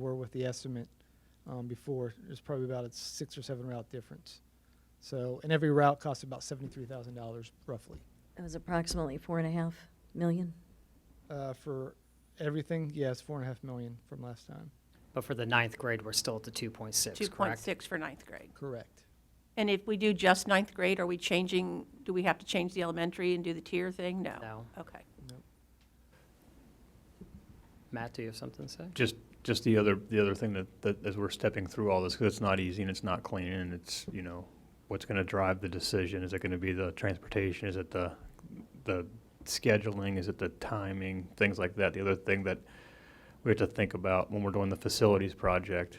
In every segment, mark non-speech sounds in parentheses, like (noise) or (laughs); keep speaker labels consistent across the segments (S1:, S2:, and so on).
S1: with the estimate um, before. There's probably about a six or seven route difference. So, and every route costs about seventy-three thousand dollars roughly
S2: It was approximately four and a half million.
S1: uh, for everything. Yes, four and a half million from last time.
S3: But for the ninth grade, we're still at the 2.6, correct?
S4: 2.6 for ninth grade.
S1: Correct.
S4: And if we do just ninth grade, are we changing, do we have to change the elementary and do the tier thing? No.
S3: No.
S4: Okay.
S3: Matt, do you have something to say?
S5: Just, just the other, the other thing that, that as we're stepping through all this, because it's not easy and it's not clean and it's, you know, what's going to drive the decision? Is it going to be the transportation? Is it the, the scheduling? Is it the timing? Things like that. The other thing that we have to think about when we're doing the facilities project,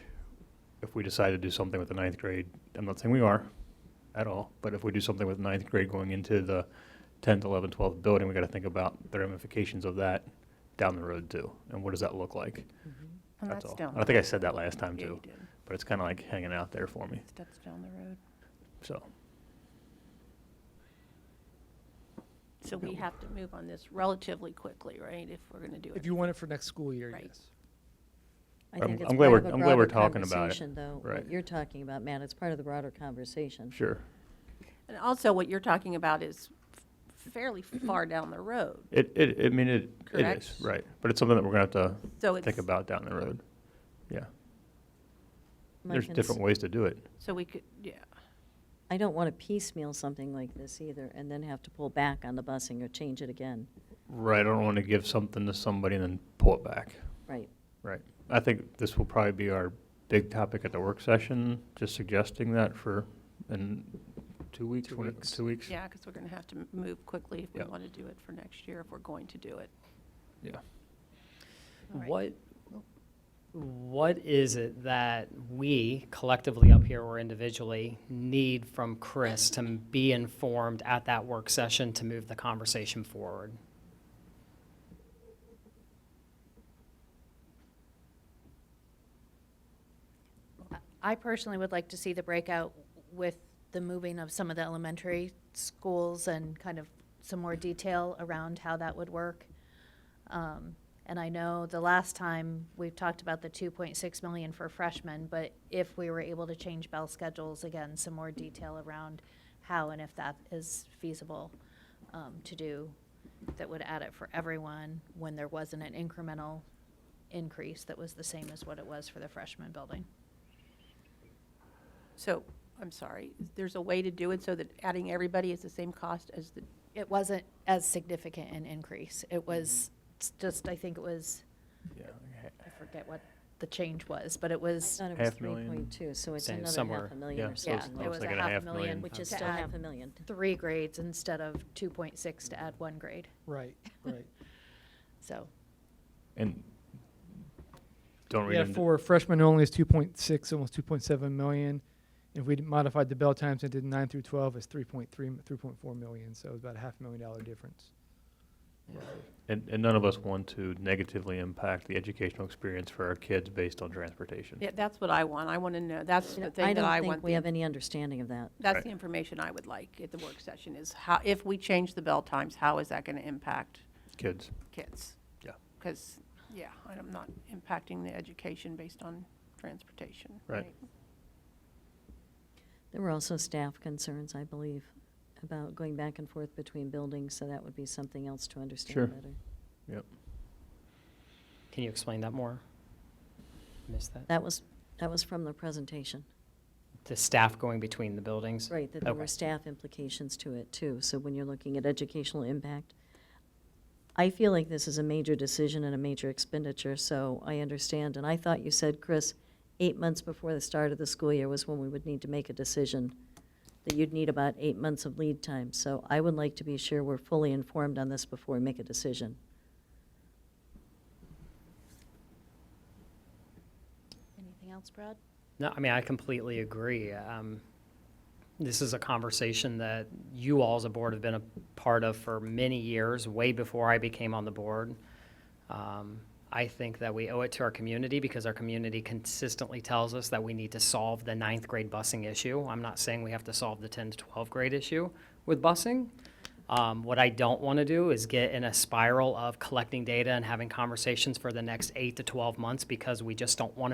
S5: if we decide to do something with the ninth grade, I'm not saying we are at all, but if we do something with ninth grade going into the 10th, 11th, 12th building, we got to think about the ramifications of that down the road too. And what does that look like?
S4: And that's
S5: That's all.
S4: down.
S5: I think I said that last time
S4: Yeah, you
S5: too,
S4: did.
S5: but it's kind of like hanging out there for me.
S4: That's down the road.
S5: So
S4: So we have to move on this relatively quickly, right, if we're going to do
S1: If
S4: it?
S1: you want it for next school year,
S4: Right.
S1: yes.
S2: I
S5: I'm-
S2: think it's
S5: I'm glad
S2: part
S5: we're-
S2: of a
S5: I'm glad we're
S2: broader
S5: talking about it.
S2: conversation, Though,
S5: Right.
S2: what you're talking about, Matt, it's part of the broader conversation.
S5: sure,
S4: And also, what you're talking about is fairly far down the road.
S5: it it I mean it it
S4: Correct.
S5: is right, but it's something that we're gonna have to
S4: So it's,
S5: think about down the road. Yeah,
S2: My
S5: there's
S2: cons-
S5: different ways to do it.
S4: so we could, yeah.
S2: I don't want to piecemeal something like this either and then have to pull back on the busing or change it again.
S5: Right, I don't want to give something to somebody and then pull it back.
S2: Right.
S5: Right, I think this will probably be our big topic at the work session. Just suggesting that for in two weeks,
S3: Two
S5: when it-
S3: weeks.
S5: two weeks.
S4: Yeah, because we're going to have to m- move quickly if we
S5: Yeah.
S4: want to do it for next year, if we're going to do it.
S5: Yeah.
S4: All right.
S3: What, what is it that we collectively up here or individually need from Chris to m- be informed at that work session to move the conversation forward?
S6: I personally would like to see the breakout with the moving of some of the elementary schools and kind of some more detail around how that would work. Um, And I know the last time, we've talked about the 2.6 million for freshmen, but if we were able to change bell schedules, again, some more detail around how and if that is feasible um, to do, that would add it for everyone when there wasn't an incremental increase that was the same as what it was for the freshman building.
S4: So, I'm sorry, there's a way to do it so that adding everybody is the same cost as the,
S6: It wasn't as significant an increase. It was s- just, I think it was,
S5: Yeah.
S6: I forget what the change was, but it
S2: I
S6: was,
S2: thought it was
S5: Half million.
S2: 3.2, so it's
S3: Same,
S2: another
S3: somewhere.
S2: half a million
S5: Yeah,
S2: or
S5: so it's-
S2: something
S6: yeah, it
S2: like
S6: was a
S5: like a half
S6: half
S5: million.
S6: million,
S2: Which is
S6: to
S2: still
S6: add
S2: half a million.
S6: three grades instead of 2.6 to add one grade.
S1: Right,
S5: (laughs)
S1: right.
S6: So
S5: And don't read
S1: Yeah,
S5: into-
S1: for freshmen only is two point six, almost two point seven million. If we modified the bell times and did nine through twelve, it's three point three, three point four million, so it's about a half million dollar difference.
S5: And, and none of us want to negatively impact the educational experience for our kids based on transportation.
S4: yeah, that's what I want. I want to know, that's
S2: You know,
S4: the thing that
S2: don't
S4: I
S2: think
S4: want.
S2: We
S4: the-
S2: have any understanding of that.
S4: That's
S5: Right.
S4: the information I would like at the work session is how, if we change the bell times, how is that going to impact
S5: Kids.
S4: kids?
S5: Yeah.
S4: Because, yeah, I'm not impacting the education based on transportation.
S5: Right.
S2: There were also staff concerns, I believe, about going back and forth between buildings, so that would be something else to
S5: Sure.
S2: understand better.
S3: Can you explain that more? Missed that?
S2: That was, that was from the presentation,
S3: The staff going between the buildings?
S2: right, that there were
S3: Okay.
S2: staff implications to it too. So when you're looking at educational impact, I feel like this is a major decision and a major expenditure, so I understand. And I thought you said, Chris, eight months before the start of the school year was when we would need to make a decision, that you'd need about eight months of lead time. So I would like to be sure we're fully informed on this before we make a decision.
S6: anything else, Brad?
S3: No, I mean, I completely agree. Um, this is a conversation that you all as a board have been a part of for many years, way before I became on the board. Um, I think that we owe it to our community because our community consistently tells us that we need to solve the ninth grade busing issue. I'm not saying we have to solve the 10 to 12 grade issue with busing. Um, what I don't want to do is get in a spiral of collecting data and having conversations for the next eight to 12 months because we just don't want to